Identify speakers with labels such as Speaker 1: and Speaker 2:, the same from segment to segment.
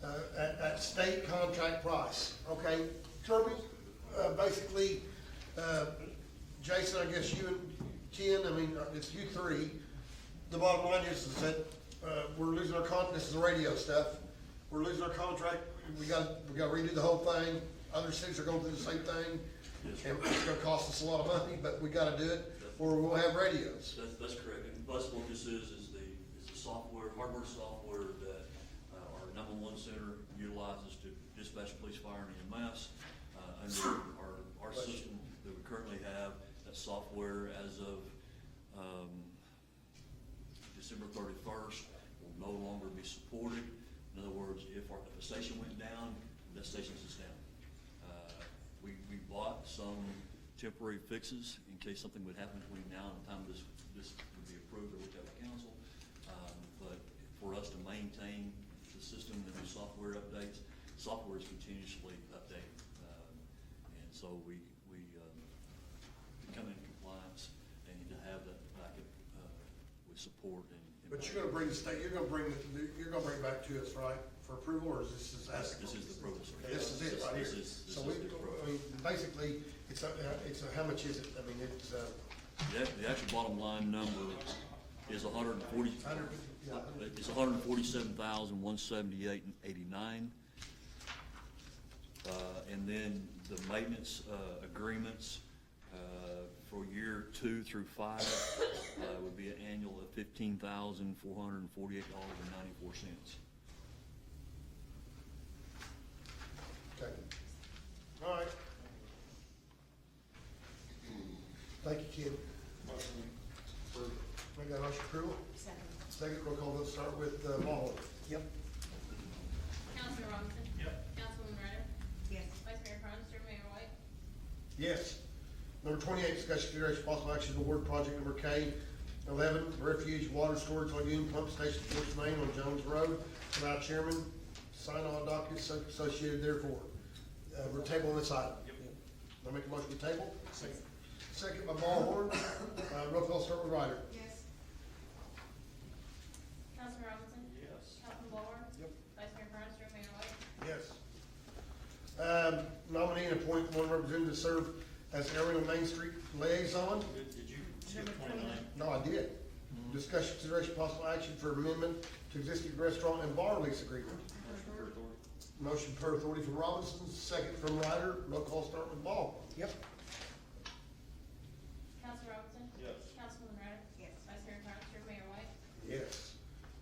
Speaker 1: that Uh, state contract price, okay? Kirby, uh, basically, uh, Jason, I guess you and Ken, I mean, uh, it's you three. The bottom line is, is that, uh, we're losing our con, this is the radio stuff. We're losing our contract, we gotta, we gotta redo the whole thing. Other cities are going through the same thing. And it's gonna cost us a lot of money, but we gotta do it, or we'll have radios.
Speaker 2: That's, that's correct, and Bus Focus is, is the, is the software, hardware software that uh, our number one center utilizes to dispatch police, fire, and EMS. Uh, Under our, our system that we currently have, that software as of, um, December thirty-first will no longer be supported. In other words, if our, if a station went down, that station is down. Uh, We, we bought some temporary fixes in case something would happen between now and the time this, this would be approved or looked at by council. Um, But for us to maintain the system and do software updates, software is continuously updated. Um, And so we, we, um, become in compliance and to have that backup uh, with support and. and-
Speaker 1: But you're gonna bring the state, you're gonna bring, the- you're gonna bring it back to us, right, for approval, or is this is
Speaker 2: This-
Speaker 1: ethical?
Speaker 2: This is the approval, sir.
Speaker 1: This is it, right here.
Speaker 2: This is, this
Speaker 1: So we,
Speaker 2: is the approval.
Speaker 1: I mean, basically, it's, a- it's, a- how much is it? I mean, it's, uh,
Speaker 2: The, act- the actual bottom line number is a hundred and forty,
Speaker 1: hundred, yeah,
Speaker 2: it's a hundred and forty-seven thousand, one seventy-eight and eighty-nine. Uh, and then the maintenance, uh, agreements, uh, for year two through five, uh, would be an annual of fifteen thousand, four hundred and forty-eight dollars and ninety-four cents.
Speaker 1: okay. All right. Thank you, Ken. We got motion approval?
Speaker 3: Second.
Speaker 1: Second, roll call, let's start with, uh, Mahler. Yep.
Speaker 4: Councilman Robinson? Yep. Councilwoman Ryder?
Speaker 3: Yes.
Speaker 4: Vice Mayor Cronster, Mayor White?
Speaker 1: Yes. Number twenty-eight, discussion consideration possible action to award project number K eleven, refuge water storage lagoon pump station Forest Main on Jones Road. And our chairman, sign all documents associated therefore. Uh, we're tabling this item. I make a motion to table. Second. Second by Ballhorn, uh, roll call start with Ryder.
Speaker 3: Yes.
Speaker 4: Councilman Robinson? Yes. Councilman Ballhorn?
Speaker 1: Yep.
Speaker 4: Vice Mayor Cronster, Mayor White?
Speaker 1: Yes. Um, nominee and appoint one representative to serve as area and Main Street liaison.
Speaker 5: Did did you skip
Speaker 3: Number
Speaker 5: twenty-nine?
Speaker 1: No, I did. Discussion consideration possible action for amendment to existing restaurant and bar lease agreement.
Speaker 5: Motion for authority.
Speaker 1: Motion per authority from Robinson, second from Ryder. Roll call start with Ball. Yep.
Speaker 4: Councilman Robinson?
Speaker 5: Yes.
Speaker 4: Councilwoman Ryder?
Speaker 3: Yes.
Speaker 4: Vice Mayor Cronster, Mayor White?
Speaker 1: Yes.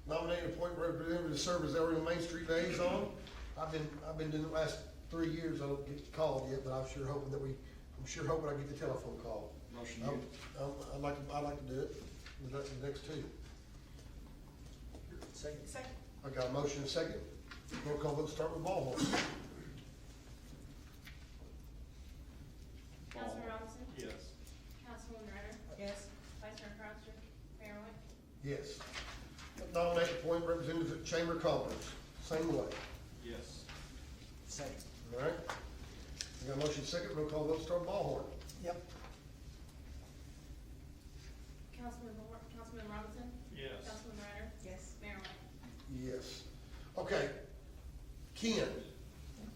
Speaker 1: Nominate and appoint representative to serve as Everino Main Street liaison. I've been, I've been doing it the last three years. I don't get called yet, but I'm sure hoping that we, I'm sure hoping I get the telephone call.
Speaker 5: Motion
Speaker 1: Um,
Speaker 5: you.
Speaker 1: um, I'd like, to- I'd like to do it, the next- the next two.
Speaker 3: Second. Second.
Speaker 1: I got a motion and a second. Roll call vote start with Ball.
Speaker 4: Councilman Robinson?
Speaker 5: Yes.
Speaker 4: Councilwoman Ryder?
Speaker 3: Yes.
Speaker 4: Vice Mayor Cronster, Mayor White?
Speaker 1: Yes. Nominate and appoint representative at Chamber of Commerce, same way,
Speaker 5: Yes.
Speaker 6: Second.
Speaker 1: all right? We got a motion second, roll call vote, start Ballhorn.
Speaker 6: Yep.
Speaker 4: Councilman Ballhorn, Councilman Robinson?
Speaker 5: Yes.
Speaker 4: Councilman Ryder?
Speaker 3: Yes.
Speaker 4: Mayor White?
Speaker 1: Yes. Okay. Ken,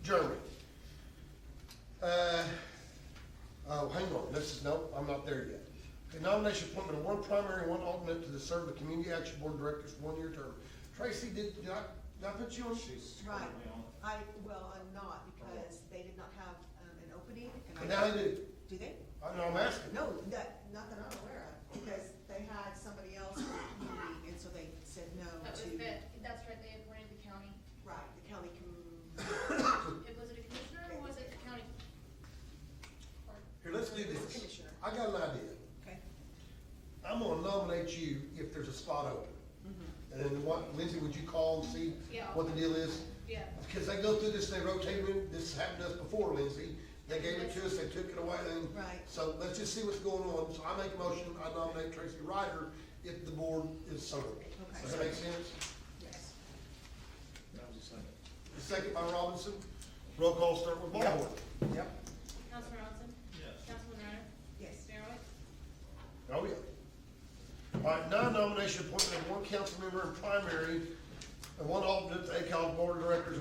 Speaker 1: Jeremy. Uh, oh, hang on, this is, no, I'm not there yet. The nomination appointment of one primary, and one alternate to the serve the Community Action Board Director's one-year term. Tracy, did, did I, did I put you on?
Speaker 5: She's
Speaker 3: Right.
Speaker 5: currently on it.
Speaker 3: I, well, I'm not because they did not have um, an opening.
Speaker 1: And
Speaker 3: and I-
Speaker 1: now they do.
Speaker 3: Do they?
Speaker 1: I know, I'm asking.
Speaker 3: No, that, not that I'm aware of, because they had somebody else for the community and so they said no
Speaker 4: That was
Speaker 3: to.
Speaker 4: that, that's right, they appointed the county.
Speaker 3: Right, the county com,
Speaker 4: It Was it a commissioner or was it the county? Or,
Speaker 1: Here, let's do this.
Speaker 3: Commissioner.
Speaker 1: I got an idea.
Speaker 3: okay,
Speaker 1: I'm gonna nominate you if there's a spot open.
Speaker 3: Mm-hmm.
Speaker 1: And then what, Lindsay, would you call and see
Speaker 4: Yeah.
Speaker 1: what the deal is?
Speaker 4: yeah.
Speaker 1: Because they go through this, they rotate it, this happened to us before, Lindsay, they gave it to us, they took it away, and.
Speaker 3: Right.
Speaker 1: So let's just see what's going on, so I make a motion, I nominate Tracy Ryder if the board is so.
Speaker 3: Okay.
Speaker 1: Does that make sense?
Speaker 3: yes.
Speaker 5: That was a second.
Speaker 1: Second by Robinson, roll call start with Ballhorn.
Speaker 6: Yep.
Speaker 4: Councilman Robinson?
Speaker 5: Yes.
Speaker 4: Councilman Ryder?
Speaker 3: Yes.
Speaker 4: Mayor White?
Speaker 1: Oh, yeah. All right, non-nomination appointment of one council member in primary and one alternate to ACOG Board of Directors